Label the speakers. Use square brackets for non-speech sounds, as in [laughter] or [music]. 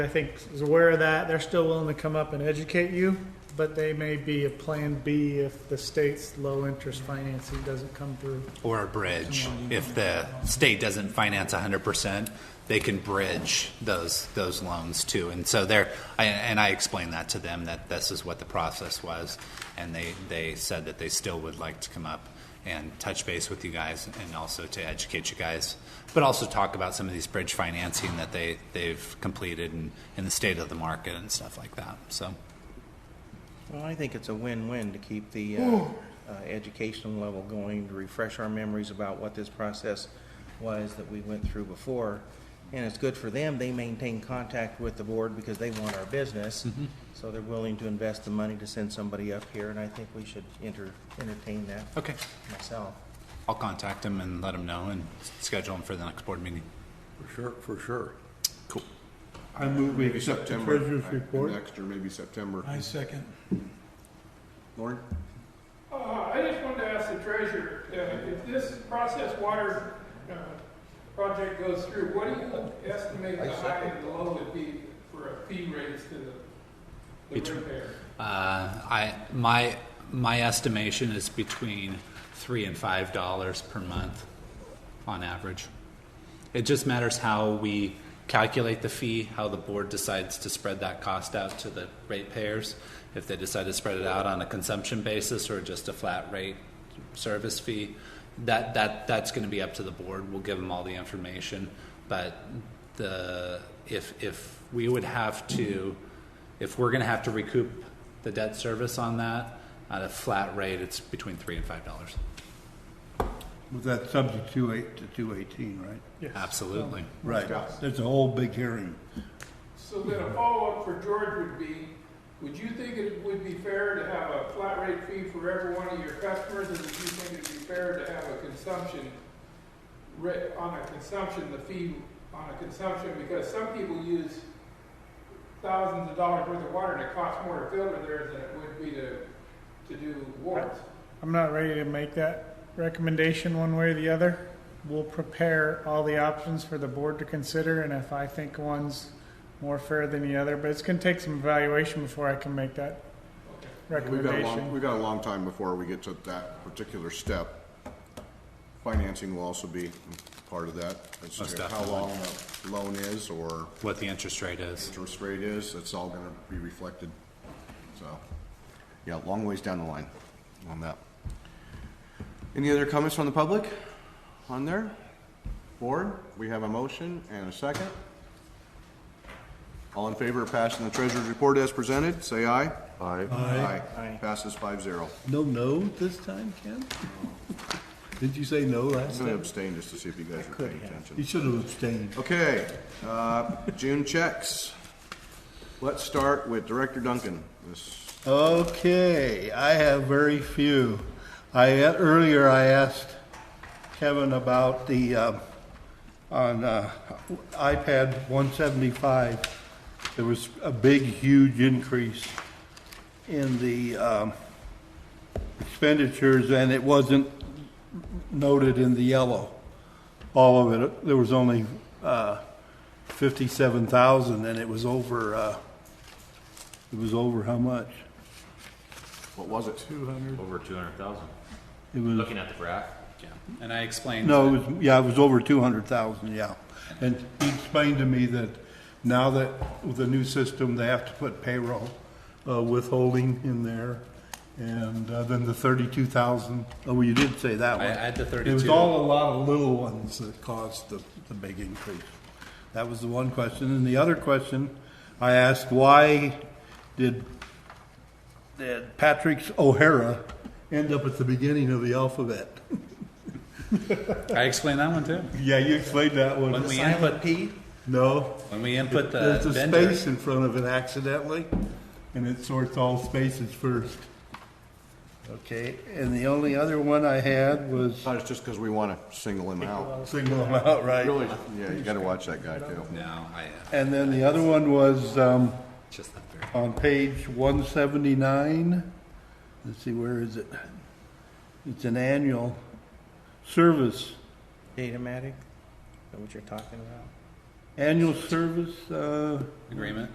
Speaker 1: I think is aware of that. They're still willing to come up and educate you, but they may be a plan B if the state's low interest financing doesn't come through.
Speaker 2: or a bridge. If the state doesn't finance hundred percent, they can bridge those, those loans too. And so there, I- and I explained that to them, that this is what the process was. And they, they said that they still would like to come up and touch base with you guys and also to educate you guys. But also talk about some of these bridge financing that they, they've completed and, and the state of the market and stuff like that, so.
Speaker 3: Well, I think it's a win-win to keep the uh, uh, educational level going, to refresh our memories about what this process was that we went through before. And it's good for them, they maintain contact with the board because they want our business. So they're willing to invest the money to send somebody up here, and I think we should enter, entertain that
Speaker 2: Okay,
Speaker 3: myself.
Speaker 2: I'll contact them and let them know and schedule them for the next board meeting.
Speaker 4: For sure, for sure.
Speaker 5: I move we
Speaker 4: Maybe
Speaker 5: accept the
Speaker 4: September.
Speaker 5: treasurer's
Speaker 4: uh,
Speaker 5: report.
Speaker 4: Next or maybe September.
Speaker 5: I second.
Speaker 4: Lauren?
Speaker 6: Uh, I just wanted to ask the treasurer, uh, if this process water uh, project goes through, what do you estimate the high and the low would be for a fee raise to the- the
Speaker 2: Between-
Speaker 6: repair?
Speaker 2: Uh, I my my estimation is between three and five dollars per month on average. It just matters how we calculate the fee, how the board decides to spread that cost out to the ratepayers. If they decide to spread it out on a consumption basis or just a flat rate service fee, that that that's going to be up to the board. We'll give them all the information, but the if if we would have to if we're going to have to recoup the debt service on that at a flat rate, it's between three and five dollars.
Speaker 5: Was that subject to eight to two eighteen, right?
Speaker 2: Absolutely.
Speaker 5: Right. There's a whole big hearing.
Speaker 6: So then a follow-up for George would be, would you think it would be fair to have a flat rate fee for every one of your customers? And would you think it'd be fair to have a consumption rate, on a consumption, the fee on a consumption? Because some people use thousands of dollars worth of water and it costs more to filter theirs than it would be to, to do wards.
Speaker 1: I'm not ready to make that recommendation one way or the other. We'll prepare all the options for the board to consider, and if I think one's more fair than the other, but it's going to take some evaluation before I can make that
Speaker 6: Okay.
Speaker 4: We've got a long,
Speaker 1: recommendation.
Speaker 4: we've got a long time before we get to that particular step. Financing will also be part of that. as to
Speaker 2: Most
Speaker 4: How
Speaker 2: definitely.
Speaker 4: long the loan is or
Speaker 2: What the interest rate is.
Speaker 4: interest rate is, it's all gonna be reflected. So, yeah, long ways down the line on that. Any other comments from the public on there? Board, we have a motion and a second. All in favor of passing the treasurer's report as presented, say aye. Aye. Aye.
Speaker 3: Aye.
Speaker 4: Passes five zero.
Speaker 7: No, no this time,
Speaker 5: [laughs]
Speaker 7: Ken? Did you say no
Speaker 4: I'm
Speaker 7: last
Speaker 4: gonna
Speaker 7: time?
Speaker 4: abstain just to see if you guys are paying
Speaker 7: You
Speaker 4: attention.
Speaker 7: should have abstained.
Speaker 4: Okay, uh, June checks. Let's start with Director Duncan. This
Speaker 7: Okay, I have very few. I, earlier I asked Kevin about the, uh, on uh, iPad 175, there was a big, huge increase in the um, expenditures, and it wasn't noted in the yellow. All of it, there was only uh, 57,000, and it was over, uh, it was over how much?
Speaker 4: What was it?
Speaker 8: Over two hundred thousand.
Speaker 7: It was,
Speaker 8: Looking at the graph,
Speaker 2: Yeah. And I explained.
Speaker 7: no, it was, yeah, it was over two hundred thousand, yeah. And he explained to me that now that with the new system, they have to put payroll, uh, withholding in there. And, uh, then the thirty-two thousand, oh, well, you did say that
Speaker 2: I
Speaker 7: one.
Speaker 2: had the
Speaker 7: It was
Speaker 2: 32.
Speaker 7: all a lot of little ones that caused the, the big increase. That was the one question. And the other question, I asked, why did did Patrick's O'Hara end up at the beginning of the alphabet?
Speaker 2: I explained that one too.
Speaker 7: Yeah, you explained that
Speaker 2: When
Speaker 7: one.
Speaker 2: we input
Speaker 3: P?
Speaker 7: No,
Speaker 2: when we input the
Speaker 7: there's a
Speaker 2: vendor,
Speaker 7: space in front of it accidentally, and it sorts all spaces first. Okay, and the only other one I had was
Speaker 4: Not just because we want to single him out.
Speaker 7: single them out, right?
Speaker 4: Really, yeah, you got to watch that guy too.
Speaker 2: no, I uh,
Speaker 7: And then the other one was um,
Speaker 2: just not very.
Speaker 7: on page 179. Let's see, where is it? It's an annual service.
Speaker 3: Datamatic, is that what you're talking about?
Speaker 9: annual service, uh,
Speaker 7: uh, agreement?